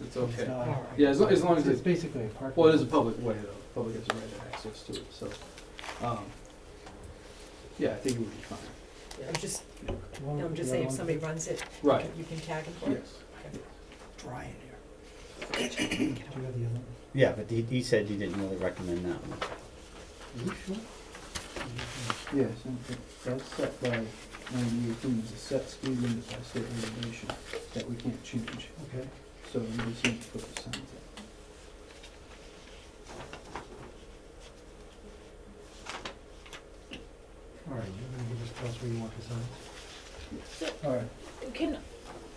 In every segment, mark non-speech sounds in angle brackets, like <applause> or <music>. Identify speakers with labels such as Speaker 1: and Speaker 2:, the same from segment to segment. Speaker 1: It's
Speaker 2: It's
Speaker 1: okay.
Speaker 2: not-
Speaker 3: Alright.
Speaker 1: Yeah, as, lo- as long as
Speaker 2: It's
Speaker 1: it's,
Speaker 2: basically a parking.
Speaker 1: well, it is a
Speaker 2: lot.
Speaker 1: public way though, public has a right of access to it, so, um, yeah, I think it would be fine.
Speaker 3: I'm just,
Speaker 2: Do you want
Speaker 3: I'm
Speaker 2: the
Speaker 3: just
Speaker 2: other
Speaker 3: saying if
Speaker 2: one?
Speaker 3: somebody runs it,
Speaker 1: Right,
Speaker 3: you can tag them for it.
Speaker 1: yes.
Speaker 2: Dry in here.
Speaker 3: Get
Speaker 2: Do
Speaker 3: them.
Speaker 2: you have the other one?
Speaker 4: Yeah, but he, he said he didn't really recommend that one.
Speaker 1: Are you sure? Yes, and it- that's set by ninety-eight feet, a set speed limit by state regulation that we can't change,
Speaker 2: Okay.
Speaker 1: so we just need to put the signs up.
Speaker 2: All right, you're gonna give us plus where you want the signs? All right.
Speaker 5: Can,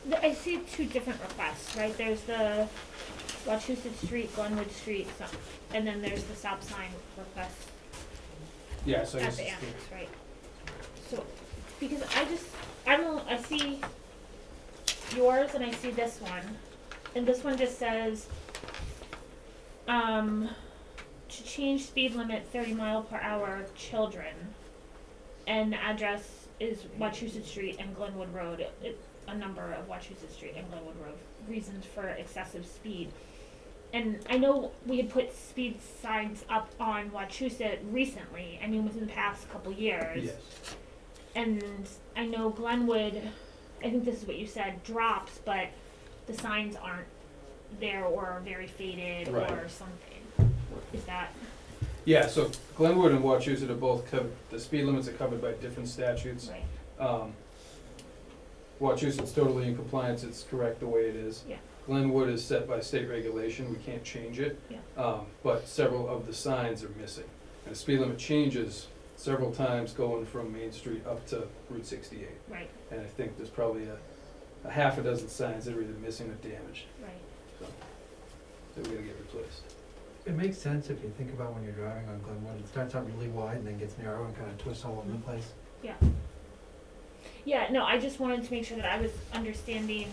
Speaker 5: th- I see two different requests, right? There's the Wachusett Street, Glenwood Street, so- and then there's the stop sign request
Speaker 6: Yeah, so I
Speaker 5: at
Speaker 6: guess
Speaker 5: the
Speaker 6: it's
Speaker 5: annex, right? So, because I just, I don't, I see yours and I see this one, and this one just says, um, to change speed limit thirty mile per hour, children. And the address is Wachusett Street and Glenwood Road, it, a number of Wachusett Street and Glenwood Road, reasons for excessive speed. And I know we had put speed signs up on Wachusett recently, I mean, within the past couple years.
Speaker 1: Yes.
Speaker 5: And I know Glenwood, I think this is what you said, drops, but the signs aren't there or are very faded
Speaker 6: Right.
Speaker 5: or something. Is that,
Speaker 6: Yeah, so Glenwood and Wachusett are both covered, the speed limits are covered by different statutes.
Speaker 5: right,
Speaker 6: Um, Wachusett's totally in compliance, it's correct the way it is.
Speaker 5: Yeah.
Speaker 6: Glenwood is set by state regulation, we can't change it.
Speaker 5: Yeah.
Speaker 6: Um, but several of the signs are missing. And the speed limit changes several times going from Main Street up to Route sixty-eight.
Speaker 5: right,
Speaker 6: And I think there's probably a, a half a dozen signs that are either missing or damaged,
Speaker 5: right.
Speaker 6: that we're gonna get replaced.
Speaker 2: It makes sense if you think about when you're driving on Glenwood, it starts out really wide and then gets narrow and kind of twists all
Speaker 3: Mm-hmm.
Speaker 2: over the place.
Speaker 5: Yeah, no, I just wanted to make sure that I was understanding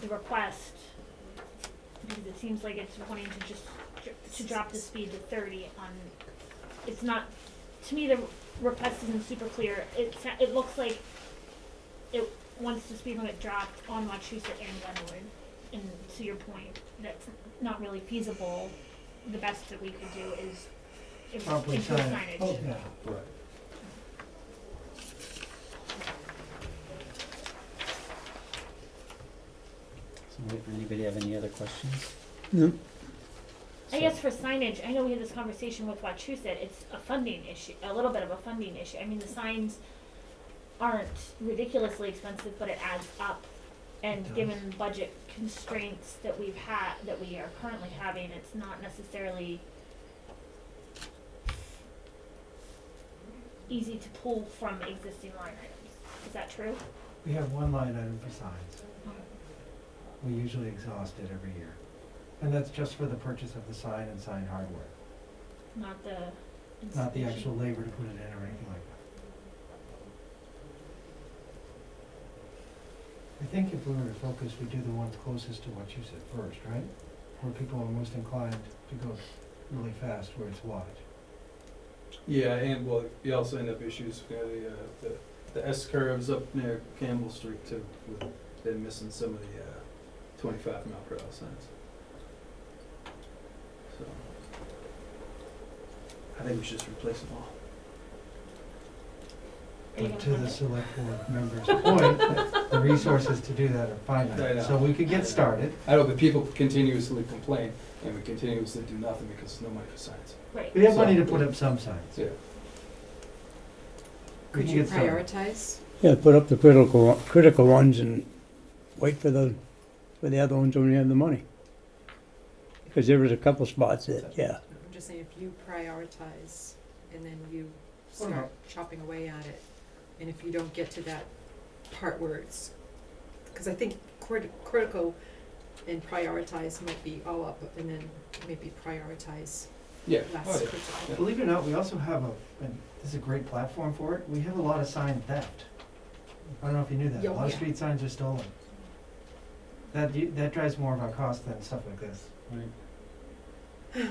Speaker 5: the request, because it seems like it's wanting to just, dr- to drop the speed to thirty on, it's not, to me, the request isn't super clear, it, sa- it looks like it wants the speed limit dropped on Wachusett and Glenwood, and to your point, that's not really feasible, the best that we could do is im-
Speaker 2: Probably
Speaker 5: improve
Speaker 2: sign-
Speaker 5: signage.
Speaker 2: Oh, yeah.
Speaker 6: Right.
Speaker 4: So, anybody have any other questions?
Speaker 5: I guess for signage, I know we had this conversation with Wachusett, it's a funding issue, a little bit of a funding issue. I mean, the signs aren't ridiculously expensive, but it adds up. And
Speaker 2: It
Speaker 5: given budget constraints that we've had, that we are currently having, it's not necessarily easy to pull from existing line items. Is that true?
Speaker 2: We have one line item for signs. Mm-hmm. We usually exhaust it every year. And that's just for the purchase of the sign and sign hardware,
Speaker 5: Not the
Speaker 2: not the
Speaker 5: installation?
Speaker 2: actual labor to put it in or anything like that. I think if we were to focus, we'd do the ones closest to what you said first, right? Where people are most inclined to go really fast where it's wide.
Speaker 6: Yeah, and well, you also end up issues with the, uh, the, the S curves up near Campbell Street too, with them missing some of the, uh, twenty-five mile per hour signs. So,
Speaker 1: I think we should just replace them all.
Speaker 5: Are you
Speaker 2: But
Speaker 5: gonna
Speaker 2: to
Speaker 5: fund
Speaker 2: the
Speaker 5: it?
Speaker 2: select board members' point, that the resources to do that are
Speaker 6: I know.
Speaker 2: finite. So we could get started.
Speaker 6: I know the people continuously complain and we continuously do nothing because there's no money for signs.
Speaker 5: Right.
Speaker 2: We have money to put up some signs.
Speaker 6: Yeah.
Speaker 2: We
Speaker 3: Could
Speaker 2: can
Speaker 3: you
Speaker 2: get started.
Speaker 3: prioritize?
Speaker 7: Yeah, put up the critical, critical ones and wait for the, for the other ones when you have the money. Because there was a couple spots that, yeah,
Speaker 3: I'm just saying, if you prioritize and then you
Speaker 2: Or
Speaker 3: start chopping away at it, and if you don't get to that part where it's, because I think crit- critical and prioritize might be all up, and then maybe prioritize
Speaker 6: Yeah.
Speaker 3: less
Speaker 6: Oh, yeah.
Speaker 3: critical.
Speaker 2: Believe it or not, we also have a, and this is a great platform for it, we have a lot of sign theft. I don't know if you knew that,
Speaker 3: Yeah,
Speaker 2: a lot of
Speaker 3: yeah.
Speaker 2: street signs are stolen. That, u- that drives more of our cost than stuff like this.
Speaker 6: Right.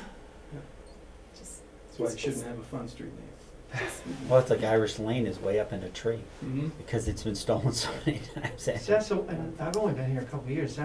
Speaker 3: Just
Speaker 6: That's why you shouldn't have a fun street name.
Speaker 4: Well, it's like Irish Lane is way up in a tree
Speaker 6: Mm-hmm.
Speaker 4: because it's been stolen so many <laughs> times.
Speaker 2: Cecil, and I've only been here a couple of years,